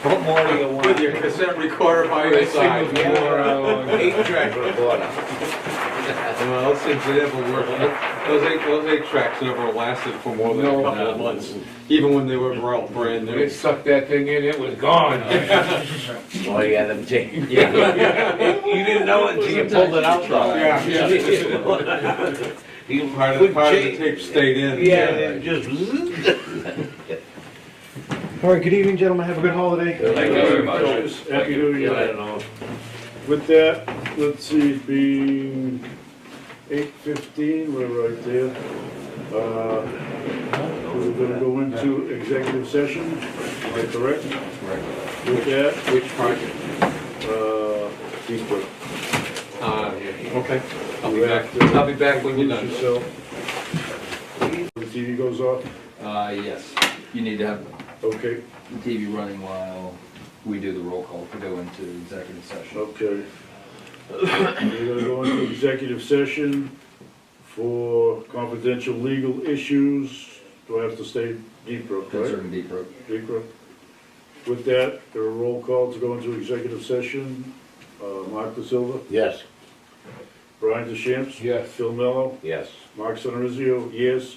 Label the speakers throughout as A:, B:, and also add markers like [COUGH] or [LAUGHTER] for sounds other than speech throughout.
A: What more do you want?
B: With your cassette recorder by your side. Eight track recorder. Well, those things never worked. Those eight, those eight tracks never lasted for more than a
C: No.
B: couple of months, even when they were all brand
C: They
B: new.
C: sucked that thing in, it was gone.
A: Oh, yeah, them
D: [LAUGHS]
A: tape. You didn't know it until you pulled it out though.
B: Yeah,
A: [LAUGHS]
B: yeah.
A: You
B: Part of,
A: put
B: part of the
A: tape-
B: tape stayed in.
A: Yeah, and just. [LAUGHS]
E: All right, good evening, gentlemen, have a good holiday.
A: Thank
C: you very much.
F: Happy New Year. With that, let's see, being eight fifteen, we're right there. Uh, We're gonna go into executive session, am I correct? With that,
B: Which part?
F: uh, deep breath.
B: Uh, okay. I'll be
F: You
B: back,
F: have to-
B: I'll be back when you're
F: Lose
B: done.
F: yourself. The TV goes off,
D: Uh, yes, you need to have
F: okay,
D: the TV running while we do the roll call to go into executive session.
F: okay. We're gonna go into executive session for confidential legal issues. Do I have to stay deep breath, right?
D: Concerning Deep Brook.
F: Secret. With that, there are roll call to go into executive session. Uh, Mark De Silva,
E: Yes.
F: Brian DeChamps.
C: Yes.
F: Phil Mello,
E: Yes.
F: Mark Senorizio, yes.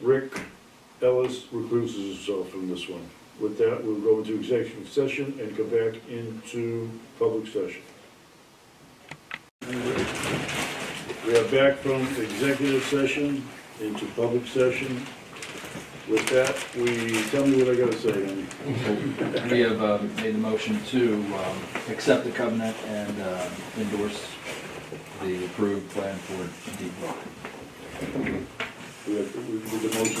F: Rick Ellis recuses himself from this one. With that, we'll go into executive session and come back into public session. We are back from executive session into public session. With that, we, tell me what I gotta say, Andy.
D: We have uh, made the motion to um, accept the covenant and uh, endorse the approved plan for Deep Brook.
F: We have, we did the motion, we-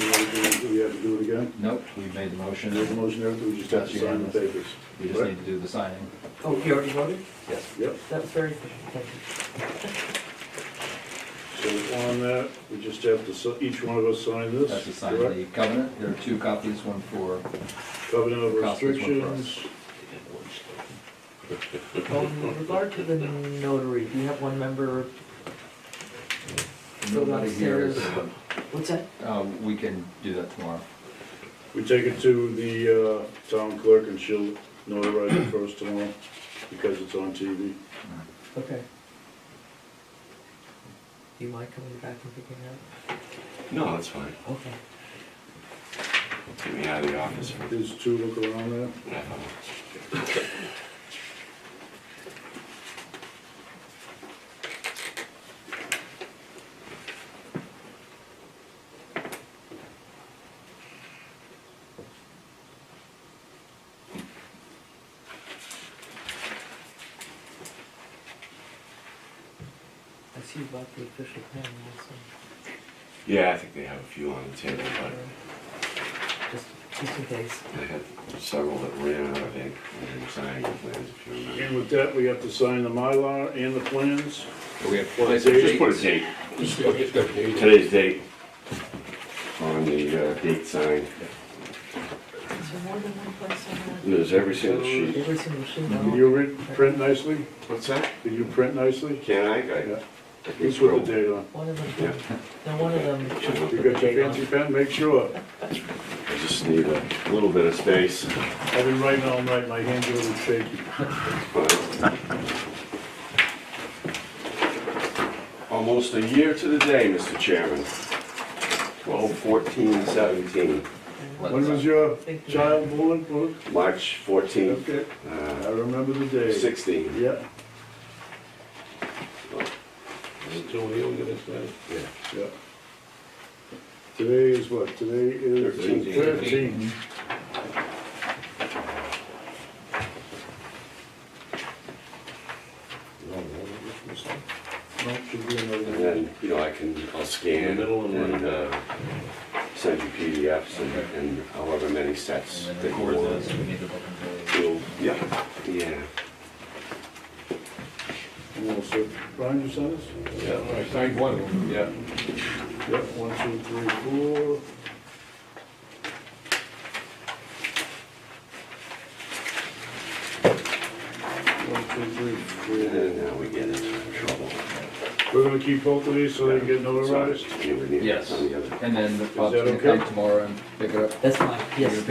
F: we we have to do it again?
D: Nope, we made the motion.
F: There's a motion there, we just have to sign the papers.
D: We just need to do the signing.
G: Oh, you already voted?
D: Yes.
F: Yep,
G: That was very efficient, thank you.
F: so on that, we just have to, si- each one of us sign this.
D: That's to sign
F: correct?
D: the covenant. There are two copies, one for,
F: Covenant of
D: Cost is one for us.
F: restrictions.
G: Um, with regard to the notary, do you have one member, So
D: nobody here is,
G: what's that?
D: uh, we can do that tomorrow.
F: We take it to the uh, town clerk and she'll notarize it first tomorrow, because it's on TV.
G: Okay. Do you mind coming back and picking it
H: No, that's fine.
G: up? Okay.
H: Get me out of the office. for-
F: There's two look around there.
G: I see you bought the official pen also,
H: Yeah, I think they have a few on the table,
G: just, just in case.
H: but they had several that ran out of ink when they were signing the plans, if you remember.
F: And with that, we have to sign the Mylar and the plans.
D: We have
H: Well,
D: place
H: Just put a date, today's date on the uh, date sign.
G: Is there more than one person?
H: There's every single sheet.
G: Every single machine,
F: Did
G: no?
F: you re- print nicely?
B: What's that?
F: Did you print nicely?
H: Can I?
F: Yeah.
H: I- I? can
F: Who's with
H: scroll.
F: the date on?
G: One of them, no, one of them should
F: You got your fancy pen, make sure.
H: I just need a little bit of space.
F: I've been writing all night, my hands are a little shaky.
H: Almost a year to the day, Mr. Chairman. Twelve, fourteen, seventeen,
F: When was your
G: think.
F: child born, Brooke?
H: March fourteenth,
F: Okay,
H: uh,
F: I remember the day.
H: sixteen.
F: Yeah, yeah. Today is what, today is
H: Thirteen.
F: thirteen. No, should be another
H: And
F: one.
H: then, you know, I can, I'll scan and uh, send you PDFs and- and however many sets
D: And
H: that
D: then
H: you
D: record
H: want.
D: this, we need to book and pay.
H: You'll- Yeah, yeah.
F: You want to sit? Brian, you sent us?
C: I signed one of them.
B: Yeah.
F: Yep, one, two, three, four. One, two, three, four.
H: And now we get into trouble.
F: We're gonna keep both of these so they can get notarized?
H: You would need
D: Yes.
H: on the other.
D: And then Bob's
F: that
D: gonna
F: okay?
D: come tomorrow and pick it up.
G: That's fine, yes.